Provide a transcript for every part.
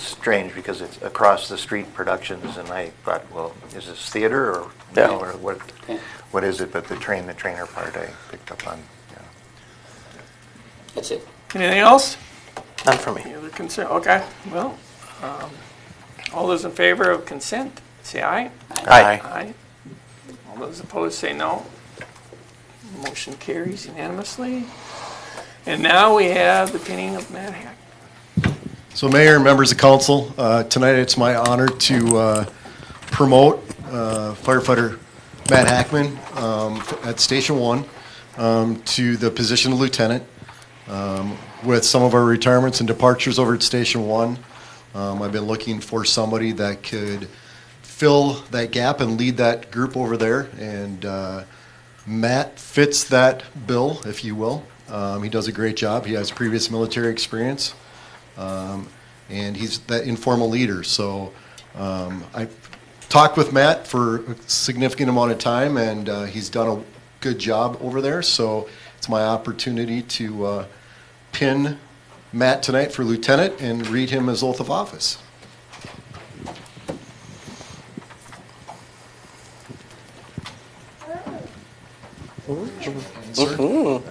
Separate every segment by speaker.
Speaker 1: strange because it's across the street productions, and I thought, well, is this theater or
Speaker 2: Yeah.
Speaker 1: no, or what?
Speaker 3: Okay.
Speaker 1: What is it? But the train, the trainer part, I picked up on. Yeah.
Speaker 3: That's it.
Speaker 4: Anything else?
Speaker 2: None for me.
Speaker 4: Any other consent? Okay, well, um, all those in favor of consent, say aye.
Speaker 2: Aye.
Speaker 4: Aye. All those opposed, say no. Motion carries unanimously. And now we have the pinning of Mad Hack.
Speaker 5: So Mayor and members of council, uh, tonight it's my honor to uh, promote uh, firefighter Matt Hackman um, at Station One um, to the position of lieutenant. Um, With some of our retirements and departures over at Station One, um, I've been looking for somebody that could fill that gap and lead that group over there. And uh, Matt fits that bill, if you will. Um, He does a great job. He has previous military experience and he's that informal leader. So um, I talked with Matt for a significant amount of time, and uh, he's done a good job over there. So it's my opportunity to uh, pin Matt tonight for lieutenant and read him his oath of office. Sir?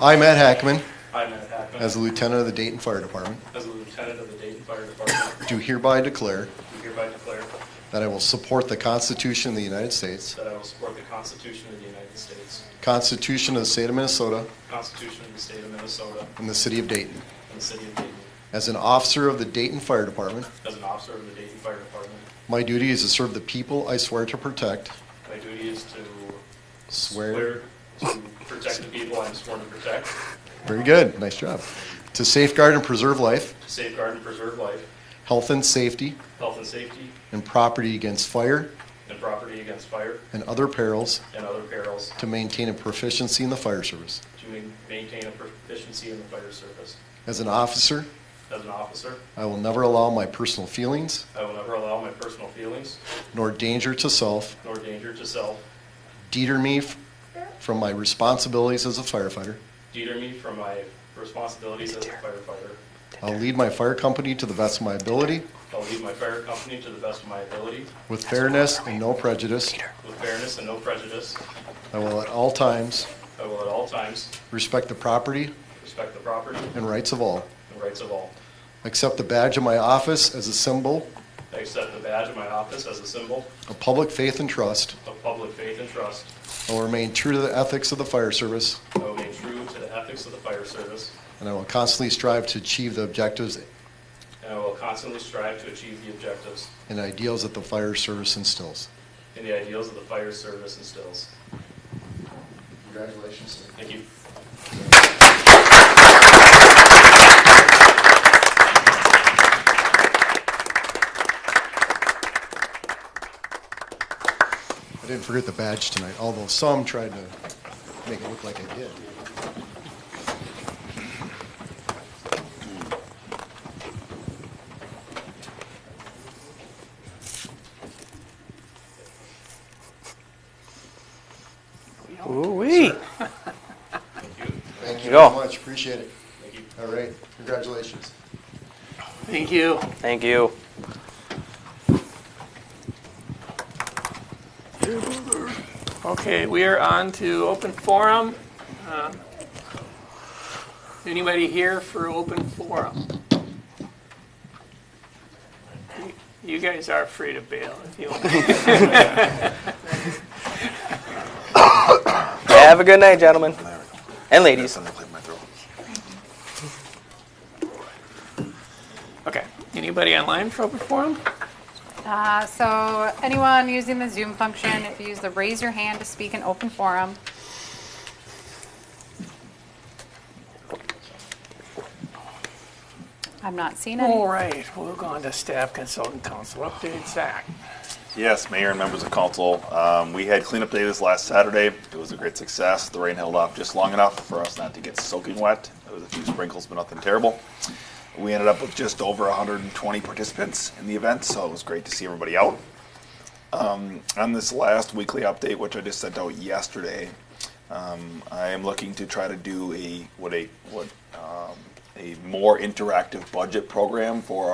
Speaker 5: I, Matt Hackman,
Speaker 6: I, Matt Hackman,
Speaker 5: as a lieutenant of the Dayton Fire Department,
Speaker 6: as a lieutenant of the Dayton Fire Department,
Speaker 5: Do hereby declare
Speaker 6: do hereby declare
Speaker 5: that I will support the Constitution of the United States,
Speaker 6: that I will support the Constitution of the United States,
Speaker 5: Constitution of the State of Minnesota,
Speaker 6: the Constitution of the State of Minnesota,
Speaker 5: and the City of Dayton.
Speaker 6: and the City of Dayton.
Speaker 5: As an officer of the Dayton Fire Department,
Speaker 6: As an officer of the Dayton Fire Department,
Speaker 5: my duty is to serve the people I swear to protect.
Speaker 6: my duty is to
Speaker 5: Swear.
Speaker 6: swear to protect the people I am sworn to protect,
Speaker 5: Very good, nice job. To safeguard and preserve life,
Speaker 6: to safeguard and preserve life,
Speaker 5: health and safety,
Speaker 6: health and safety,
Speaker 5: and property against fire
Speaker 6: and property against fire
Speaker 5: and other perils,
Speaker 6: and other perils,
Speaker 5: to maintain a proficiency in the fire service.
Speaker 6: to ma- maintain a proficiency in the fire service.
Speaker 5: As an officer,
Speaker 6: As an officer,
Speaker 5: I will never allow my personal feelings
Speaker 6: I will never allow my personal feelings
Speaker 5: nor danger to self
Speaker 6: nor danger to self
Speaker 5: deter me f- from my responsibilities as a firefighter.
Speaker 6: deter me from my responsibilities as a firefighter.
Speaker 5: I'll lead my fire company to the best of my ability
Speaker 6: I'll lead my fire company to the best of my ability,
Speaker 5: with fairness and no prejudice.
Speaker 6: with fairness and no prejudice.
Speaker 5: I will at all times
Speaker 6: I will at all times
Speaker 5: respect the property
Speaker 6: respect the property
Speaker 5: and rights of all.
Speaker 6: and rights of all.
Speaker 5: Accept the badge of my office as a symbol
Speaker 6: I accept the badge of my office as a symbol
Speaker 5: of public faith and trust.
Speaker 6: of public faith and trust.
Speaker 5: I will remain true to the ethics of the fire service,
Speaker 6: I will remain true to the ethics of the fire service,
Speaker 5: and I will constantly strive to achieve the objectives
Speaker 6: and I will constantly strive to achieve the objectives
Speaker 5: and ideals that the fire service instills.
Speaker 6: and the ideals of the fire service instills.
Speaker 5: Congratulations, sir.
Speaker 6: Thank you.
Speaker 5: I didn't forget the badge tonight, although some tried to make it look like I did.
Speaker 2: Ooh-wee.
Speaker 5: Thank
Speaker 2: you
Speaker 5: you
Speaker 2: go.
Speaker 5: very much, appreciate it. Thank you. All right, congratulations.
Speaker 4: Thank you.
Speaker 2: Thank you.
Speaker 4: Okay, we are on to open forum. Uh, Anybody here for open forum? You guys are free to bail if you want.
Speaker 2: Have a good night, gentlemen and ladies.
Speaker 4: Okay, anybody online for open forum?
Speaker 7: Uh, So anyone using the Zoom function, if you use the raise your hand to speak in open forum. I'm not seeing any.
Speaker 4: All right, we'll go on to staff consultant council update, Zach.
Speaker 8: Yes, Mayor and members of council, um, we had cleanup day this last Saturday. It was a great success. The rain held off just long enough for us not to get soaking wet. There was a few sprinkles, but nothing terrible. We ended up with just over 120 participants in the event, so it was great to see everybody out. Um, on this last weekly update, which I just sent out yesterday, um, I am looking to try to do a what a what um, a more interactive budget program for